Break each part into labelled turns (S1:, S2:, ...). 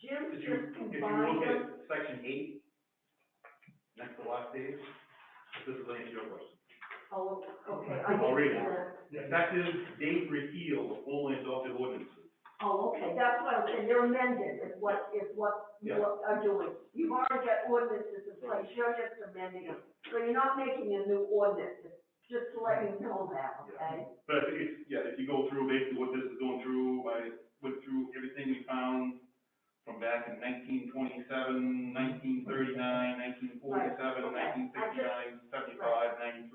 S1: if you, if you look at section eight, next to last page, if this is an issue of question.
S2: Oh, okay. I
S1: I'll read it.
S2: didn't get
S1: Effective date repeal of formerly adopted ordinances.
S2: Oh, okay, that's what I was saying, they're amended is what, is what you
S1: Yeah.
S2: are doing. You've already got ordinances in place, you're just amending them. So you're not making a new ordinance, just to let you know that, okay?
S1: But I think it's, yeah, if you go through basically what this is going through, I went through everything we found from back in 1927, 1939, 1947, 1969, 75, 93.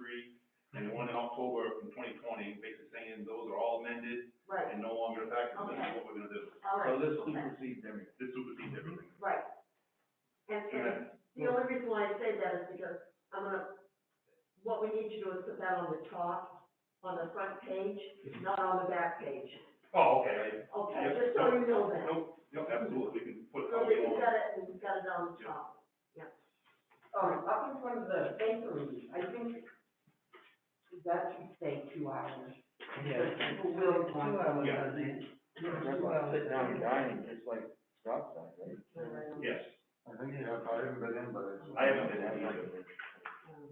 S2: Right, okay. I
S1: And the one in October from twenty twenty, basically saying those are all amended
S2: Right,
S1: and no longer effective, and this is what we're gonna do.
S2: all right.
S3: So this
S2: okay.
S3: supersedes everything.
S1: This supersedes
S2: Mm-hmm.
S1: everything.
S2: Right. And, and the only reason why I say that is because I'm gonna, what we need to do is put that on the top, on the front page, not on the back page.
S1: Oh, okay,
S2: Okay,
S1: Yep.
S2: just so you know that.
S1: I, nope, nope, absolutely, we can put it
S2: So
S1: all
S2: that
S1: we
S2: you've
S1: want.
S2: got it, and you've got it on the top.
S4: All right, up in front of the bakery, I think that should stay two hours. People will want.
S1: Yeah.
S3: That's why I'm sitting down and dining, it's like stop sign, right?
S1: Yes,
S5: I think you have, I haven't been in, but it's.
S1: I haven't been in either.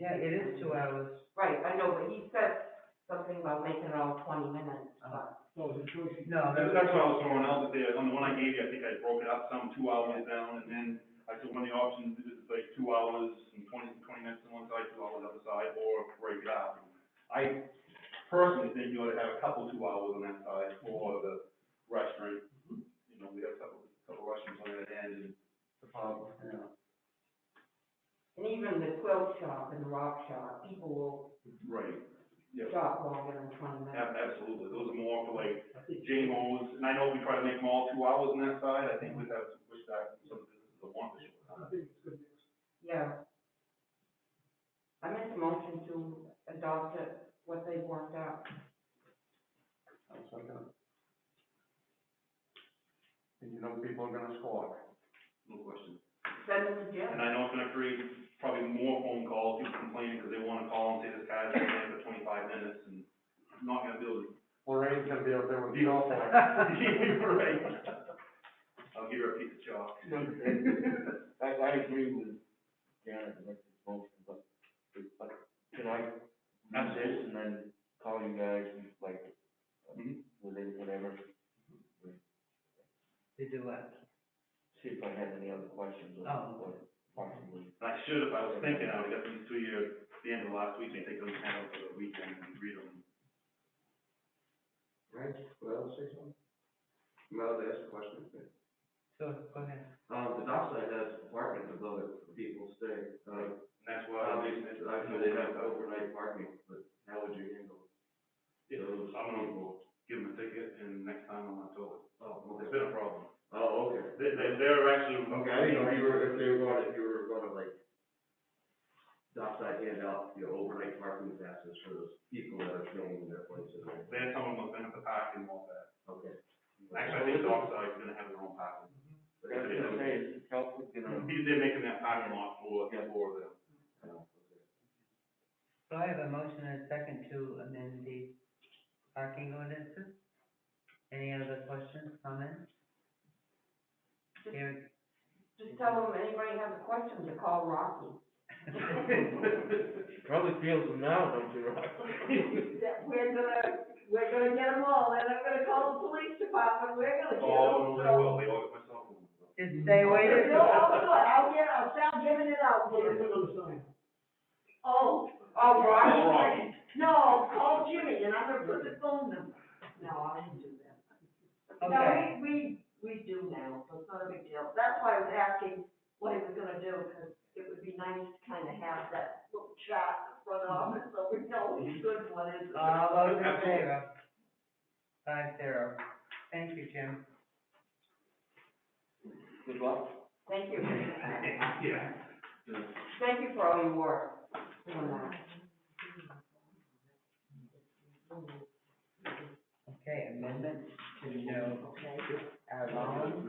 S6: Yeah, it is two hours.
S4: Right, I know, but he said something about making it all twenty minutes,
S1: Uh-huh.
S4: but.
S6: No,
S1: That's, that's what I was throwing out there, on the one I gave you, I think I broke it up some, two hours down, and then I said one of the options is like two hours and twenty, twenty minutes on one side, two hours on the other side, or break it up. I personally think you ought to have a couple two hours on that side for the restaurant,
S2: Mm-hmm.
S1: you know, we have a couple, couple restaurants on that end, and
S5: The problem, yeah.
S4: And even the quilt shop and the rock shop, people will
S1: Right, yeah,
S4: shop longer than twenty minutes.
S1: ab- absolutely, those are more for like JMOs, and I know we try to make them all two hours on that side, I think we'd have to push that, some businesses that want to.
S4: Yeah. I make a motion to adopt it, what they've worked out.
S5: I'll second it. And you know people are gonna squawk.
S1: no question.
S4: Send them to Jim.
S1: And I know it's gonna create probably more phone calls, people complaining, because they wanna call and say this guy's been there for twenty-five minutes, and I'm not gonna be able to.
S5: Lorraine's gonna be out there with.
S1: deal with
S5: cellphone.
S1: that. Right. I'll give her a piece of chalk.
S3: I, I agree with Janet, with this motion, but, but can I do this and then call you guys, like,
S5: Mm-hmm.
S1: Mhm.
S3: within whatever?
S6: To do it.
S3: See if I had any other questions or,
S6: Oh.
S3: or possibly.
S1: And I should, if I was thinking, I would've got these to you at the end of last week, and take them down for the weekend and read them.
S5: Right, well, say something. No, they asked a question.
S6: So, go ahead.
S7: Um, the dock side has parking above it for people to stay, uh,
S1: And that's why I'm
S7: obviously,
S1: using it.
S7: I know they have overnight parking, but how would you handle?
S1: Yeah, I'm gonna give them a ticket, and next time I'm gonna tell it.
S7: Oh,
S1: It's
S7: okay.
S1: been a problem.
S7: Oh, okay.
S1: They, they, they're actually.
S7: Okay, I didn't know if you were, if they were gonna, if you were gonna like, dock side hand out, you know, overnight parking passes for those people that are staying in their places.
S1: They're someone who's been at the park and all that.
S7: Okay.
S1: Actually, I think Dockside is gonna have their own parking.
S3: But I was gonna say, is Chelsea gonna,
S1: He- They're making that parking lot for, for them.
S6: So I have a motion and a second to amend the parking ordinances. Any other questions, comments? Here.
S4: Just tell them, anybody has a question, to call Rocky.
S3: she probably feels them now, don't you, Rob?
S2: That we're gonna, we're gonna get them all, and I'm gonna call the police department, we're gonna get them,
S1: Oh, they
S2: so.
S1: will, they all get myself.
S6: Just stay away
S2: No,
S6: from.
S2: I'll do it, I'll get, I'll start giving it out. Oh,
S4: Oh,
S1: All
S4: Rocky.
S1: right.
S2: no, call Jimmy, and I'm gonna put the phone number. No, I didn't do that.
S6: Okay,
S2: No, we, we, we do now, so it's not a big deal. That's why I was asking what he was gonna do, because it would be nice to kind of have that little chart in front of it, so we know he's good what is.
S6: all those in favor? Five zero. Thank you, Jim.
S3: Good luck.
S4: Thank you.
S1: Yeah.
S4: Thank you for all your work doing that.
S6: Okay, amendment to no
S2: Okay.
S6: alcohol.